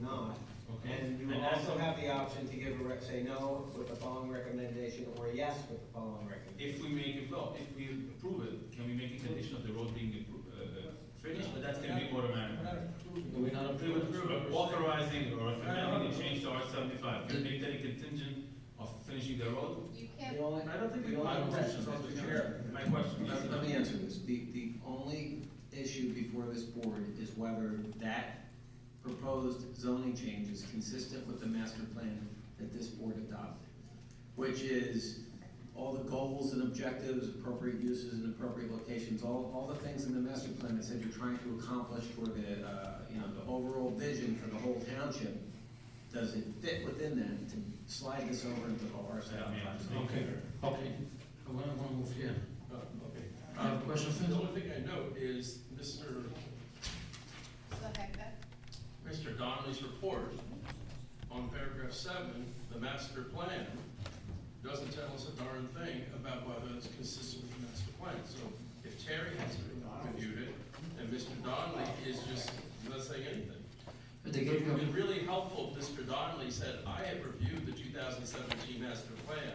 not. Okay. And you will And that's also a- have the option to give a, rec- say no with the following recommendation, or yes with the following If recommendation. we make it, no, if we approve it, can we make a condition of the road being appro- uh, uh, finished, but that's gonna be automatic. We're not We're not approving. We would approve it, authorizing or recommending No, no, no. a change to R seventy-five, can we make that a contingent of finishing the road? You The can't, only- I don't think we, the only my question, question- Mr. Chair, my question, yes, Let let me answer this. The, the only issue before this board is whether that proposed zoning change is consistent with the master plan that this board adopted, which is all the goals and objectives, appropriate uses and appropriate locations, all, all the things in the master plan that said you're trying to accomplish for the, uh, you know, the overall vision for the whole township. Does it fit within that to slide this over into the R Let me seventy-five? answer. Okay, okay. I want to move here. Oh, okay. Uh, question, The please? only thing I know is Mr. go ahead, Beth. Mr. Donnelly's report on paragraph seven, the master plan, doesn't tell us a darn thing about whether it's consistent with the master plan. So if Terry hasn't reviewed it, and Mr. Donnelly is just not saying anything. But they It gave you, would be a- really helpful if Mr. Donnelly said, I have reviewed the 2017 master plan,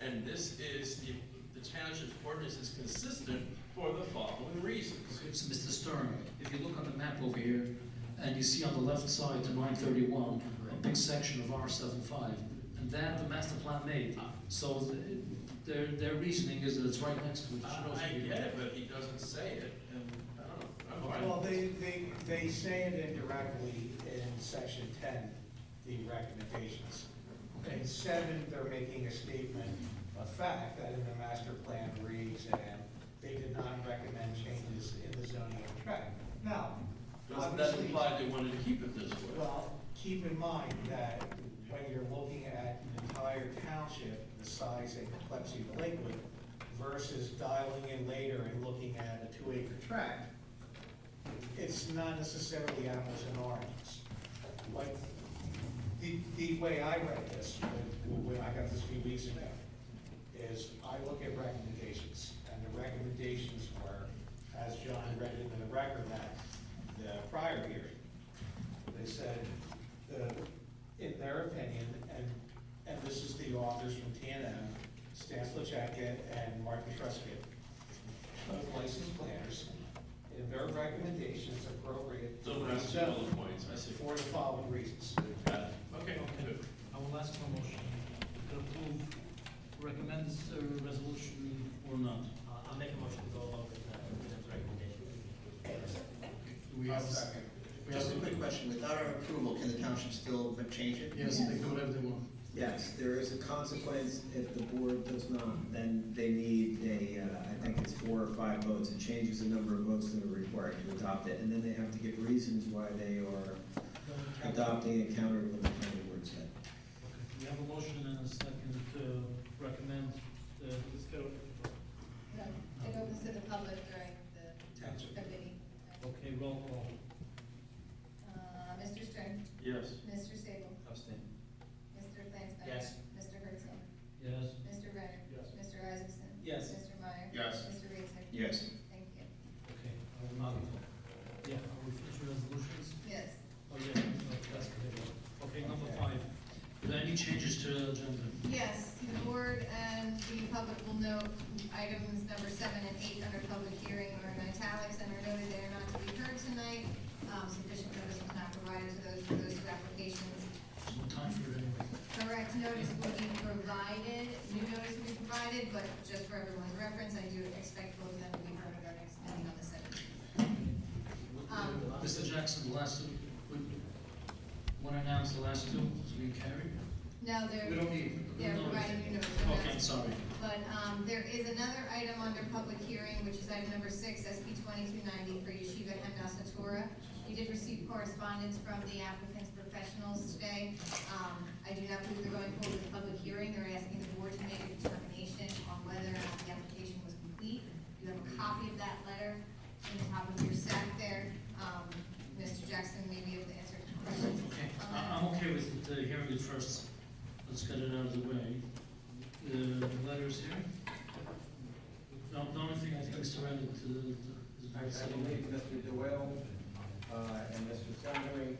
and this is, the the township's ordinance is consistent for the following reasons. it's Mr. Stern, if you look on the map over here, and you see on the left side the nine thirty-one, a big section of R 75 and that the master plan made. So th- their, their reasoning is that it's right next to it. It should also I I be get there. it, but he doesn't say it, and I don't know. I'm Well, they, they, they say it indirectly in section ten, the recommendations. In seven, they're making a statement of fact that in the master plan reads, and they did not recommend changes in the zoning tract. Now, Doesn't that obviously, imply they wanted to keep it this way? well, keep in mind that when you're looking at an entire township, the size and complexity of Lakewood versus dialing in later and looking at a two acre tract, it's not necessarily apples and oranges. Like, the, the way I read this, when when I got this a few weeks ago, is I look at recommendations, and the recommendations were, as John read it in the record that, the prior hearing, they said, uh, in their opinion, and, and this is the authors from TNM, Stan Slachaka and Martin Truscott, both licensed planners, in their recommendations appropriate. So that's the bullet points, I see. For the following reasons. Got it. Okay, good. I will ask for a motion to approve, recommend this uh, resolution or not. Uh, I'll make a motion to go along with, uh, with the recommendation. Do we have- we have- Just a quick question, without our approval, can the township still change it? Yes, they do whatever they want. Yes, there is a consequence if the board does not, then they need a, uh, I think it's four or five votes. It changes the number of votes that are required to adopt it, and then they have to give reasons why they are adopting it counter to what the planning board said. We have a motion and a second to recommend uh, the discussion. No, It opens to the public during the Township. committee. Okay, roll call. Uh, Mr. Stern, Yes. Mr. Sable, Abstain. Mr. Flansbrough. Yes. Mr. Herzl, Yes. Mr. Renner. Yes. Mr. Isaacson. Yes. Mr. Meyer. Yes. Mr. Reeser. Yes. Thank you. Okay, I will not. Yeah, are we finished with resolutions? Yes. Oh, yeah, no, that's the big one. Okay, number five. Are there any changes to the agenda? Yes, the board and the public will note items number seven and eight under public hearing are in italics and are noted they are not to be heard tonight. Um, Sufficient notice was not provided to those, for those two applications. There's no time for it anyway. Correct notice will be provided, new notice will be provided, but just for everyone's reference, I do expect both of them to be heard at our next meeting on the seventeenth. Um, Mr. Jackson, the last, want to announce the last two, so we can carry? Now, We they're, don't need. they're no. providing new notice. they're not- Okay, sorry. But um, there is another item under public hearing, which is item number six, SP twenty-two ninety for Yeshiva Hemdas Torah. You did receive correspondence from the applicant's professionals today. Um, I do not believe they're going forward with a public hearing. They're asking the board to make a determination on whether or not the application was complete. You have a copy of that letter in the top of your stack there. Um, Mr. Jackson may be able to answer questions. Okay, I- I'm okay with uh, hearing it first. Let's get it out of the way. Uh, The letters here. The the only thing I think is surrendered to the- to the... I I believe Mr. Doyle, uh, and Mr. Sondering